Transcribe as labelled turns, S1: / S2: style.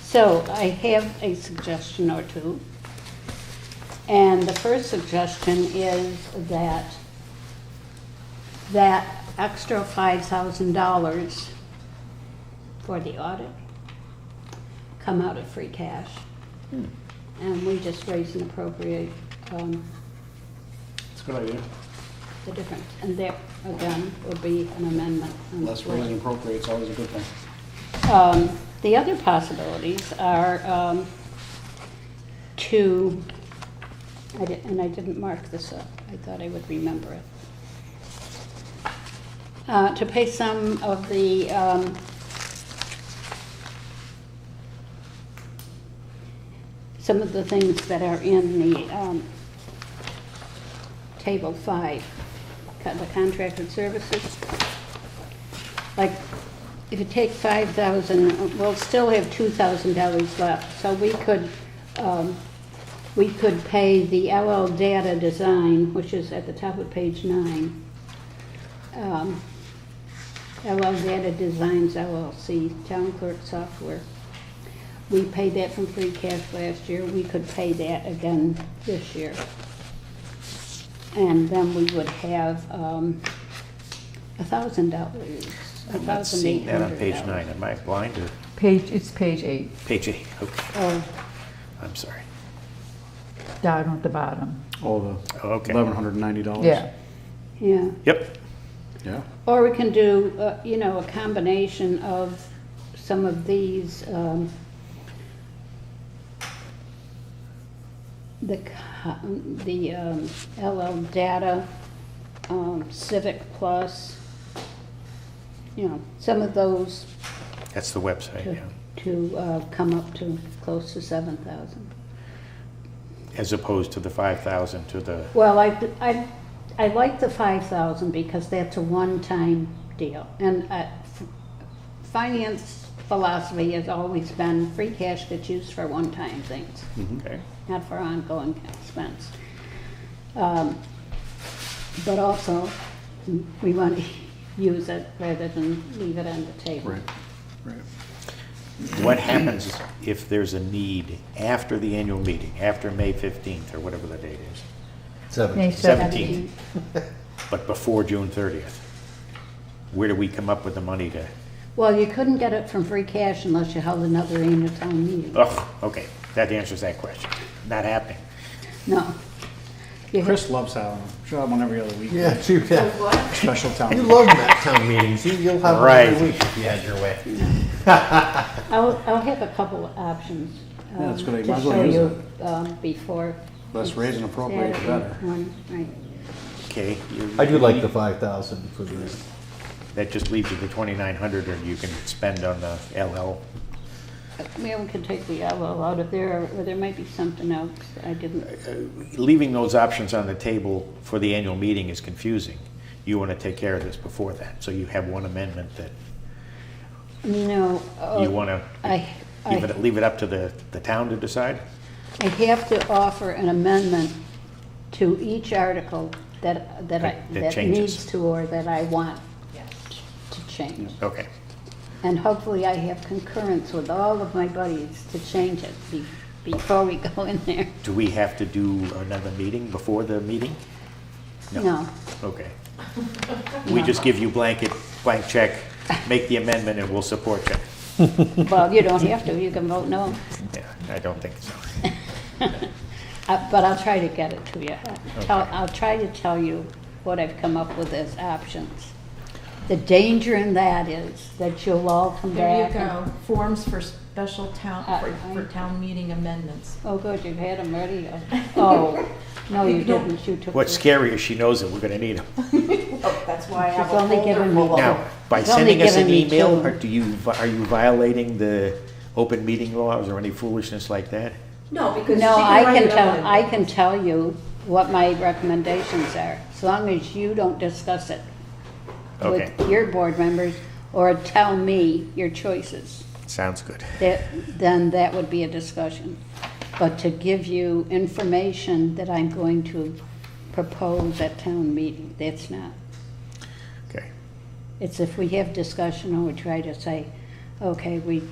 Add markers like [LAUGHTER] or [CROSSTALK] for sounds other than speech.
S1: So I have a suggestion or two. And the first suggestion is that that extra five thousand dollars for the audit come out of free cash. And we just raise and appropriate, um,
S2: It's a good idea.
S1: the difference. And there, again, would be an amendment. on the
S2: Less
S1: floor.
S2: raise and appropriate is always a good thing.
S1: Um, The other possibilities are um, to, I di- and I didn't mark this up, I thought I would remember it. Uh, To pay some of the um, some of the things that are in the um, Table 5, co- the contracted services. Like, if you take 5,000, we'll still have $2,000 left, so we could, um, we could pay the LL Data Design, which is at the top of page nine. Um, LL Data Designs LLC, Town Clerk Software. We paid that from free cash last year, we could pay that again this year. And then we would have um, a thousand dollars, a
S3: I'm not
S1: thousand eight
S3: seeing that on
S1: hundred dollars.
S3: page nine. Am I blind or?
S4: Page, it's page eight,
S3: Page eight, okay.
S1: Oh,
S3: I'm sorry.
S4: down at the bottom.
S2: Oh,
S3: Oh, okay.
S2: Eleven hundred and ninety dollars.
S4: Yeah,
S1: yeah.
S3: Yep,
S2: Yeah.
S1: Or we can do, uh, you know, a combination of some of these, um, the, co- the um, LL Data, um, Civic Plus, you know, some of those
S3: that's the website,
S1: to,
S3: yeah.
S1: to uh, come up to close to seven thousand.
S3: As opposed to the five thousand to the,
S1: Well, I, I, I like the five thousand because that's a one-time deal. And, uh, f- finance philosophy has always been free cash gets used for one-time things,
S3: okay,
S1: not for ongoing expense. Um, But also, we want to use it rather than leave it on the table.
S2: Right. Right.
S3: What happens if there's a need after the annual meeting, after May 15th or whatever the date is?
S4: May
S5: Seven.
S3: 17th, but before June 30th? Where do we come up with the money to,
S1: Well, you couldn't get it from free cash unless you held another annual town meeting.
S3: oh, okay, that answers that question. Not happening.
S1: No. You had-
S2: Chris loves having them. Should have one every other week.
S5: Yeah, [LAUGHS] true, yeah.
S2: Special town. [LAUGHS]
S5: You love that town meetings. You- You'll have one
S3: Right.
S5: every week if you had your way.
S1: I'll, I'll have a couple of options.
S2: Yeah, that's
S1: um,
S2: good. You
S1: to
S2: might as well
S1: show
S2: use
S1: you, um, Before.
S2: Less raise and appropriate, the
S1: Saturday
S2: better.
S1: morning, Right.
S3: Okay. you-
S5: I do like the five thousand for the,
S3: That just leaves you the 2,900 or you can spend on the LL
S1: Maybe we can take the elbow out of there, or there might be something else that I didn't,
S3: leaving those options on the table for the annual meeting is confusing. You want to take care of this before that, so you have one amendment that
S1: no. uh,
S3: you want to
S1: I,
S3: leave it,
S1: I,
S3: leave it up to the, the town to decide?
S1: I have to offer an amendment to each article that, that I,
S3: That- that
S1: that
S3: changes.
S1: needs to, or that I want to change.
S3: Okay,
S1: And hopefully I have concurrence with all of my buddies to change it be- before we go in there.
S3: do we have to do another meeting before the meeting?
S1: No.
S3: Okay. We just give you blanket, blank check, make the amendment, and we'll support you.
S1: Well, you don't have to, you can vote no.
S3: Yeah, I don't think so.
S1: Uh, But I'll try to get it to you. Tell- I'll try to tell you what I've come up with as options. The danger in that is that you'll all come
S6: There
S1: back.
S6: you
S1: and-
S6: go, forms for special town,
S1: Uh,
S6: for, for town meeting amendments.
S1: Oh, good, you've had them
S6: [LAUGHS]
S1: ready. Oh, no, you didn't, you took.
S3: What's scary is she knows that we're going to need them.
S6: That's why I
S1: have She's a only folder given me full of-
S3: Now, by
S1: It's only
S3: sending us an
S1: given me
S3: email,
S1: two.
S3: are, do you, vi- are you violating the open meeting laws or any foolishness like that?
S7: No, because
S1: No,
S7: she can
S1: I
S7: write
S1: can
S7: it up.
S1: tell, I can tell you what my recommendations are, as long as you don't discuss it
S3: Okay.
S1: with your board members or tell me your choices.
S3: Sounds good.
S1: that, then that would be a discussion. But to give you information that I'm going to propose at town meeting, that's not.
S3: Okay.
S1: It's if we have discussion, I would try to say, okay, we